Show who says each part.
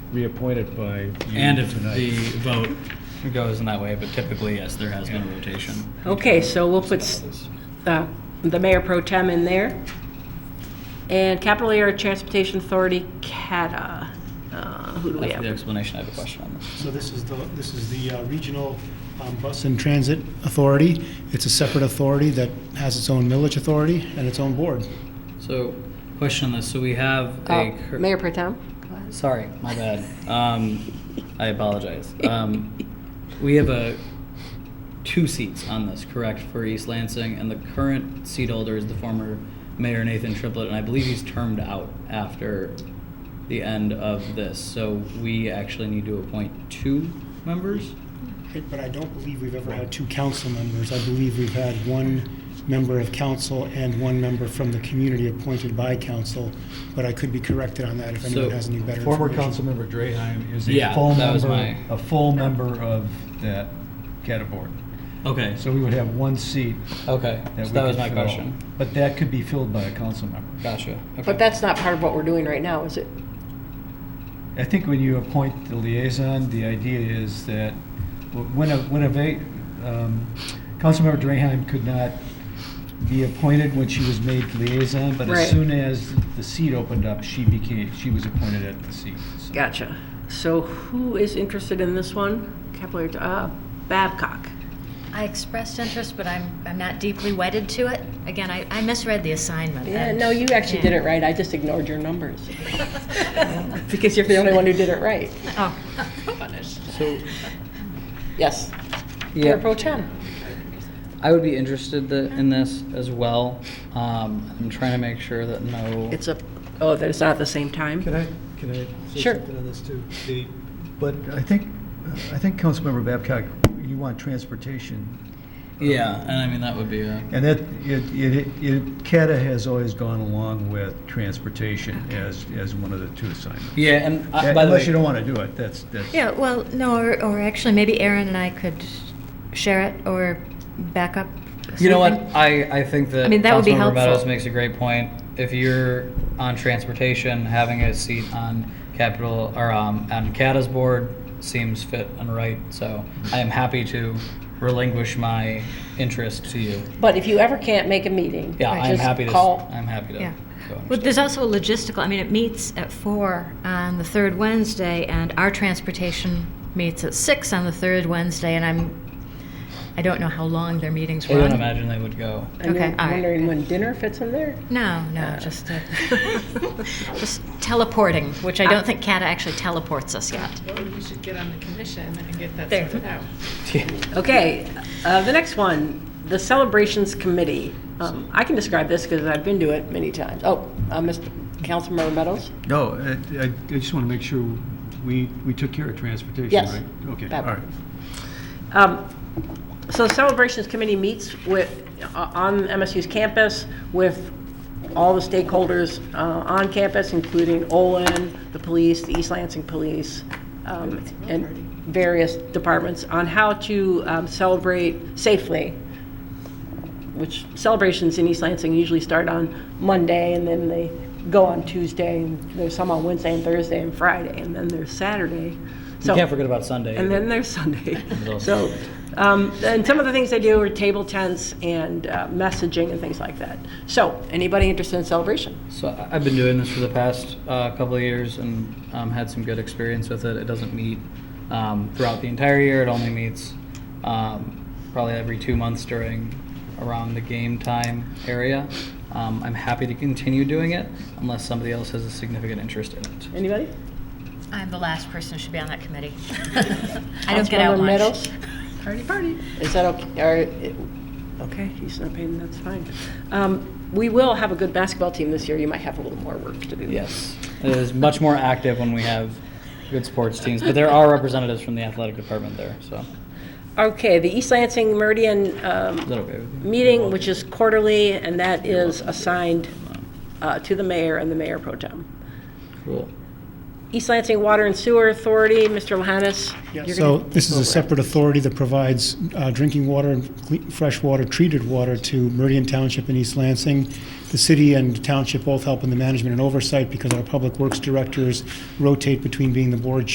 Speaker 1: reappointed by you
Speaker 2: And if
Speaker 1: tonight.
Speaker 2: the vote goes in that way, but typically, yes, there has been rotation.
Speaker 3: Okay, so we'll put s- uh, the mayor pro tem in there. And Capital Area Transportation Authority, CATA. Uh, Who do we
Speaker 2: After the
Speaker 3: have?
Speaker 2: explanation, I have a question on this.
Speaker 4: So this is the, this is the uh, Regional um, Bus and Transit Authority. It's a separate authority that has its own millage authority and its own board.
Speaker 2: So, question on this, so we have a.
Speaker 3: Oh,
Speaker 2: cur-
Speaker 3: Mayor pro tem?
Speaker 2: Sorry, my bad. Um, I apologize. Um, we have a, two seats on this, correct, for East Lansing, and the current seat holder is the former mayor Nathan Triplett, and I believe he's termed out after the end of this, so we actually need to appoint two members?
Speaker 4: But I don't believe we've ever had two council members. I believe we've had one member of council and one member from the community appointed by council, but I could be corrected on that if anyone
Speaker 2: So,
Speaker 4: has any better information.
Speaker 1: Former Councilmember Draheim is a
Speaker 2: Yeah,
Speaker 1: full
Speaker 2: that was
Speaker 1: member,
Speaker 2: my-
Speaker 1: a full member of that category.
Speaker 2: Okay,
Speaker 1: So we would have one seat
Speaker 2: okay,
Speaker 1: that we could
Speaker 2: so that was my
Speaker 1: fill.
Speaker 2: question.
Speaker 1: But that could be filled by a council member.
Speaker 2: Gotcha, okay.
Speaker 3: But that's not part of what we're doing right now, is it?
Speaker 1: I think when you appoint the liaison, the idea is that wh- when a, when a, va- um, Councilmember Draheim could not be appointed when she was made liaison, but
Speaker 3: Right.
Speaker 1: as soon as the seat opened up, she became, she was appointed at the seat. So-
Speaker 3: Gotcha. So who is interested in this one? Capital Area, uh, Babcock.
Speaker 5: I expressed interest, but I'm, I'm not deeply wedded to it. Again, I, I misread the assignment.
Speaker 3: Yeah,
Speaker 5: and-
Speaker 3: no, you actually
Speaker 5: yeah.
Speaker 3: did it right. I just ignored your numbers. Because you're the only one who did it right.
Speaker 5: Oh, punished.
Speaker 2: So,
Speaker 3: Yes. Mayor
Speaker 2: yeah,
Speaker 3: pro tem.
Speaker 2: I would be interested th- in this as well. Um, I'm trying to make sure that no.
Speaker 3: It's a, oh, that it's not at the same time?
Speaker 6: Can I, can I say
Speaker 3: Sure.
Speaker 6: something on this too? The,
Speaker 1: But I think, I think Councilmember Babcock, you want transportation
Speaker 2: Yeah, and I mean, that would be a.
Speaker 1: And that, it, it, it, CATA has always gone along with transportation as, as one of the two assignments.
Speaker 2: Yeah, and uh, by the way,
Speaker 1: Unless you don't want to do it, that's, that's.
Speaker 5: Yeah, well, no, or, or actually, maybe Aaron and I could share it or back up.
Speaker 2: you know what?
Speaker 5: something.
Speaker 2: I, I think that.
Speaker 5: I mean, that would be
Speaker 2: Councilmember
Speaker 5: helpful.
Speaker 2: Meadows makes a great point. If you're on transportation, having a seat on capital or um, on CATA's board seems fit and right. So I am happy to relinquish my interest to you.
Speaker 3: But if you ever can't make a meeting,
Speaker 2: Yeah, I'm
Speaker 3: just
Speaker 2: happy to.
Speaker 3: call.
Speaker 2: I'm happy to.
Speaker 5: Yeah.
Speaker 2: go and
Speaker 5: Well,
Speaker 2: share.
Speaker 5: there's also a logistical, I mean, it meets at four on the third Wednesday, and our transportation meets at six on the third Wednesday, and I'm, I don't know how long their meetings
Speaker 2: I
Speaker 5: run.
Speaker 2: don't imagine they would go.
Speaker 3: And
Speaker 5: Okay,
Speaker 3: then
Speaker 5: all right,
Speaker 3: wondering
Speaker 5: good.
Speaker 3: when dinner fits in there?
Speaker 5: No, no, just, uh, just teleporting, which I don't think CATA actually teleports us yet.
Speaker 7: Well, you should get on the commission and get that
Speaker 5: There.
Speaker 7: sorted out.
Speaker 3: Okay, uh, the next one, the Celebrations Committee. Um, I can describe this because I've been to it many times. Oh, uh, Mr. Councilmember Meadows?
Speaker 1: No, I, I I just want to make sure we, we took care of transportation,
Speaker 3: Yes.
Speaker 1: right? Okay, all
Speaker 3: That-
Speaker 1: right.
Speaker 3: Um, So the Celebrations Committee meets with, uh, on MSU's campus with all the stakeholders uh, on campus, including Olin, the police, the East Lansing Police, um, and various departments, on how to um, celebrate safely which celebrations in East Lansing usually start on Monday and then they go on Tuesday and there's some on Wednesday and Thursday and Friday and then there's Saturday. So,
Speaker 2: can't forget about Sunday
Speaker 3: And
Speaker 2: either.
Speaker 3: then there's Sunday.
Speaker 2: also-
Speaker 3: so, um, and some of the things they do are table tents and uh, messaging and things like that. So, anybody interested in celebration?
Speaker 2: So I- I've been doing this for the past uh, couple of years and um, had some good experience with it. It doesn't meet um, throughout the entire year. It only meets um, probably every two months during around the game time area. Um, I'm happy to continue doing it unless somebody else has a significant interest in it.
Speaker 3: Anybody?
Speaker 5: I'm the last person who should be on that committee. I don't get
Speaker 3: Councilmember
Speaker 5: out much.
Speaker 3: Meadows? Party, party. Is that okay? Are, it- okay, he's not paying, that's fine. Um, we will have a good basketball team this year. You might have a little more work to do.
Speaker 2: Yes, it is much more active when we have good sports teams, but there are representatives from the athletic department there. So is
Speaker 3: Okay, the East Lansing Meridian um,
Speaker 2: that okay with you?
Speaker 3: meeting, which is quarterly, and that is assigned uh, to the mayor and the mayor pro tem.
Speaker 2: Cool.
Speaker 3: East Lansing Water and Sewer Authority, Mr. Lahannis. you're
Speaker 4: So
Speaker 3: gonna
Speaker 4: this
Speaker 3: take
Speaker 4: is a
Speaker 3: over.
Speaker 4: separate authority that provides uh, drinking water and cle- fresh water, treated water to Meridian Township and East Lansing. the city and township both help in the management and oversight because our public works directors rotate between being the board